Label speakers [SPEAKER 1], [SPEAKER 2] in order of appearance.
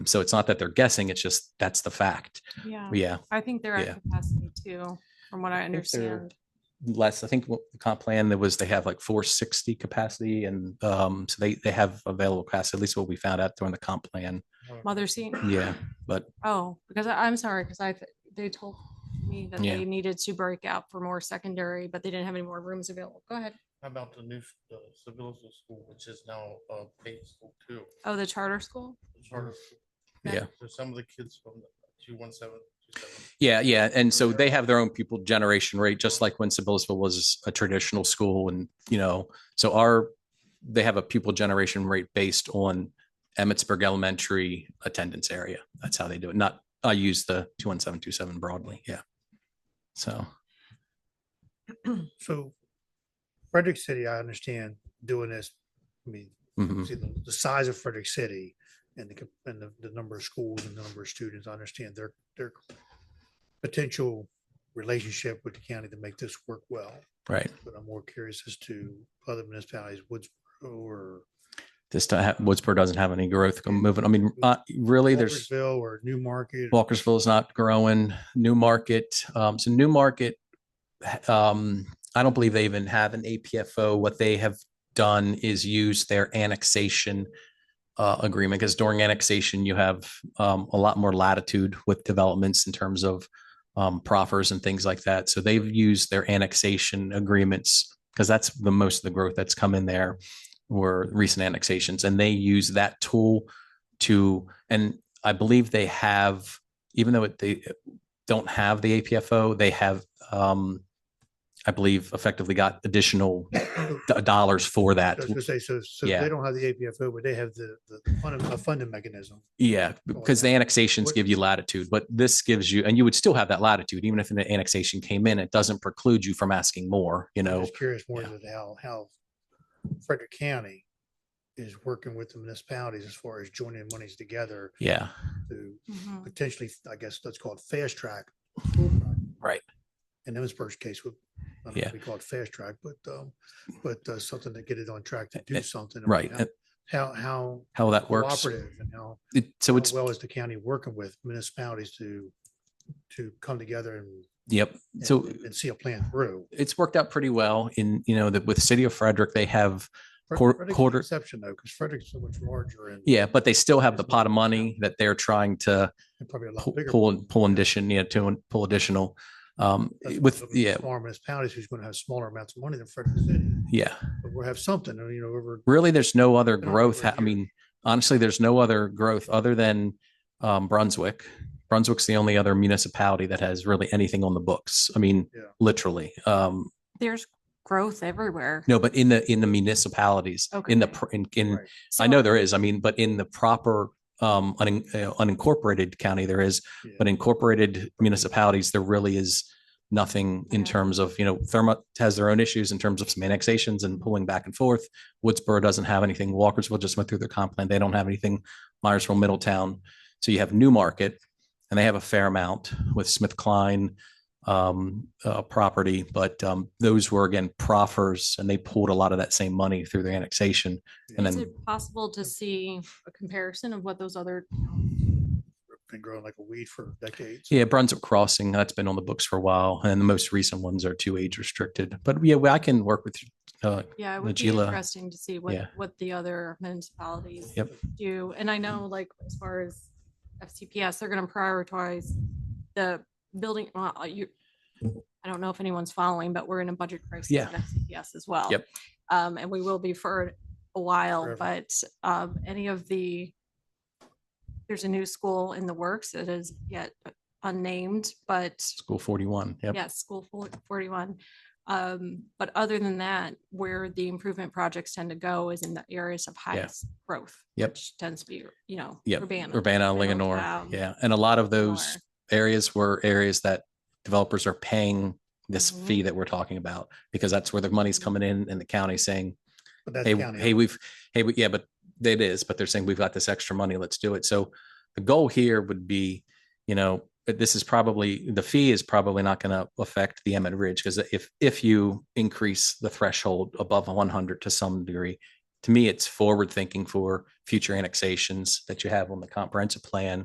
[SPEAKER 1] So it's not that they're guessing, it's just that's the fact.
[SPEAKER 2] Yeah,
[SPEAKER 1] Yeah,
[SPEAKER 2] I think they're
[SPEAKER 1] yeah.
[SPEAKER 2] at capacity too, from what I
[SPEAKER 1] think they're-
[SPEAKER 2] understand.
[SPEAKER 1] less, I think what the comp plan there was, they have like four sixty capacity and um, so they, they have available capacity, at least what we found out during the comp plan.
[SPEAKER 2] Mother scene.
[SPEAKER 1] Yeah, but
[SPEAKER 2] Oh, because I, I'm sorry, because I, th- they told me that
[SPEAKER 1] Yeah.
[SPEAKER 2] they needed to break out for more secondary, but they didn't have any more rooms available. Go ahead.
[SPEAKER 3] How about the new, s- the Seville School, which is now uh paid school too?
[SPEAKER 2] Oh, the charter school?
[SPEAKER 3] the charter school?
[SPEAKER 2] Yeah.
[SPEAKER 1] Yeah.
[SPEAKER 3] So some of the kids from the two one seven, two seven.
[SPEAKER 1] Yeah, yeah. And so they have their own pupil generation rate, just like when Sibyllsville was a traditional school. And, you know, so our, they have a pupil generation rate based on Emmitsburg Elementary attendance area. That's how they do it. Not, I use the 21727 broadly. Yeah. So,
[SPEAKER 4] So Frederick City, I understand doing this, I mean,
[SPEAKER 1] mhm.
[SPEAKER 4] see the, the size of Frederick City and the, cap- and the, the number of schools and the number of students, I understand their, their potential relationship with the county to make this work well.
[SPEAKER 1] right.
[SPEAKER 4] But I'm more curious as to other municipalities, Woodsboro or
[SPEAKER 1] This, to ha- Woodsboro doesn't have any growth moving. I mean, uh, really, there's.
[SPEAKER 4] Walkersville or Newmarket.
[SPEAKER 1] Walkersville is not growing. New Market, um, so New Market, um, I don't believe they even have an APFO. What they have done is use their annexation uh, agreement because during annexation you have um, a lot more latitude with developments in terms of um, proffers and things like that. So they've used their annexation agreements because that's the most of the growth that's come in there were recent annexations, and they use that tool to and I believe they have, even though it, they don't have the APFO, they have, um, I believe, effectively got additional d- dollars for
[SPEAKER 4] I
[SPEAKER 1] that.
[SPEAKER 4] was gonna say, so, so
[SPEAKER 1] Yeah.
[SPEAKER 4] they don't have the APFO, but they have the, the fund- a funding mechanism.
[SPEAKER 1] Yeah, because the annexations give you latitude, but this gives you, and you would still have that latitude, even if an annexation came in, it doesn't preclude you from asking more, you
[SPEAKER 4] I'm
[SPEAKER 1] know?
[SPEAKER 4] just curious more
[SPEAKER 1] yeah.
[SPEAKER 4] than how, how Frederick County is working with the municipalities as far as joining monies together
[SPEAKER 1] Yeah,
[SPEAKER 4] to
[SPEAKER 2] Mhm.
[SPEAKER 4] potentially, I guess, let's call it fast track. school project.
[SPEAKER 1] Right.
[SPEAKER 4] In Emmitsburg's case, would, I don't know
[SPEAKER 1] Yeah.
[SPEAKER 4] if we call it fast track, but, um, but uh, something to get it on track to
[SPEAKER 1] Eh, eh,
[SPEAKER 4] do something. I mean,
[SPEAKER 1] right.
[SPEAKER 4] how- How, how
[SPEAKER 1] How that works.
[SPEAKER 4] cooperative and how
[SPEAKER 1] It- So
[SPEAKER 4] how
[SPEAKER 1] it's,
[SPEAKER 4] Well, as the county working with municipalities to, to come together and.
[SPEAKER 1] yep.
[SPEAKER 4] and-
[SPEAKER 1] So
[SPEAKER 4] And see a plan through.
[SPEAKER 1] it's worked out pretty well in, you know, that with City of Frederick, they have
[SPEAKER 4] Fre-
[SPEAKER 1] Quar-
[SPEAKER 4] Frederick's an
[SPEAKER 1] quarter-
[SPEAKER 4] Exception though, because Frederick's so much larger and.
[SPEAKER 1] Yeah, but they still have the
[SPEAKER 4] There's
[SPEAKER 1] pot
[SPEAKER 4] no-
[SPEAKER 1] of money that they're trying to
[SPEAKER 4] and Probably a lot
[SPEAKER 1] pu-
[SPEAKER 4] bigger.
[SPEAKER 1] pull, pull addition, you know, to pull additional. Um,
[SPEAKER 4] That's what
[SPEAKER 1] with,
[SPEAKER 4] the
[SPEAKER 1] yeah,
[SPEAKER 4] Smaller municipalities who's going to have smaller amounts of money than Frederick City,
[SPEAKER 1] yeah.
[SPEAKER 4] but we'll have something, you know, over.
[SPEAKER 1] Really, there's no other
[SPEAKER 4] Been over
[SPEAKER 1] growth.
[SPEAKER 4] a
[SPEAKER 1] ha- I
[SPEAKER 4] year.
[SPEAKER 1] mean, honestly, there's no other growth other than um, Brunswick. Brunswick's the only other municipality that has really anything on the books. I mean,
[SPEAKER 4] Yeah.
[SPEAKER 1] literally. Um,
[SPEAKER 2] There's growth everywhere.
[SPEAKER 1] no, but in the, in the municipalities, in the,
[SPEAKER 2] Okay.
[SPEAKER 1] pr- in, in,
[SPEAKER 4] Right.
[SPEAKER 1] I know there is, I mean, but in the proper um, unin- uh, unincorporated county, there is,
[SPEAKER 4] Yeah.
[SPEAKER 1] but incorporated municipalities, there really is nothing in
[SPEAKER 2] Yeah.
[SPEAKER 1] terms of, you know, Thermont has their own issues in terms of some annexations and pulling back and forth. Woodsboro doesn't have anything. Walkersville just went through their comp plan. They don't have anything. Myersville, Middletown. So you have Newmarket and they have a fair amount with Smith Klein um, uh, property, but um, those were again proffers and they pulled a lot of that same money through their annexation. And
[SPEAKER 2] Is
[SPEAKER 1] then,
[SPEAKER 2] it possible to see a comparison of what those other,
[SPEAKER 4] Been growing like a weed for decades.
[SPEAKER 1] yeah, Brunswick Crossing, that's been on the books for a while. And the most recent ones are too age restricted, but yeah, I can work with uh,
[SPEAKER 2] yeah, it would be
[SPEAKER 1] Najila.
[SPEAKER 2] interesting to see what,
[SPEAKER 1] Yeah.
[SPEAKER 2] what the other municipalities
[SPEAKER 1] Yep.
[SPEAKER 2] do. And I know like as far as FCPS, they're going to prioritize the building, well, uh, you, I don't know if anyone's following, but we're in a budget crisis
[SPEAKER 1] Yeah.
[SPEAKER 2] at FCPS as well.
[SPEAKER 1] Yep.
[SPEAKER 2] Um, and we will be for a while,
[SPEAKER 4] Forever.
[SPEAKER 2] but, um, any of the, there's a new school in the works that is yet unnamed, but
[SPEAKER 1] School 41. Yep.
[SPEAKER 2] Yes, school for- forty-one. Um, but other than that, where the improvement projects tend to go is in the areas of highest growth.
[SPEAKER 1] Yep.
[SPEAKER 2] Which tends to be, you know,
[SPEAKER 1] Yep.
[SPEAKER 2] Urbana.
[SPEAKER 1] Urbana,
[SPEAKER 2] Middletown,
[SPEAKER 1] Linganore. Yeah. And a lot of those
[SPEAKER 2] Lenore.
[SPEAKER 1] areas were areas that developers are paying this
[SPEAKER 2] Mhm.
[SPEAKER 1] fee that we're talking about because that's where the money's coming in and the county saying,
[SPEAKER 4] But that's
[SPEAKER 1] hey,
[SPEAKER 4] county.
[SPEAKER 1] hey, we've, hey, we- yeah, but it is, but they're saying we've got this extra money, let's do it. So the goal here would be, you know, but this is probably, the fee is probably not going to affect the Emmett Ridge because if, if you increase the threshold above 100 to some degree, to me, it's forward thinking for future annexations that you have on the comprehensive plan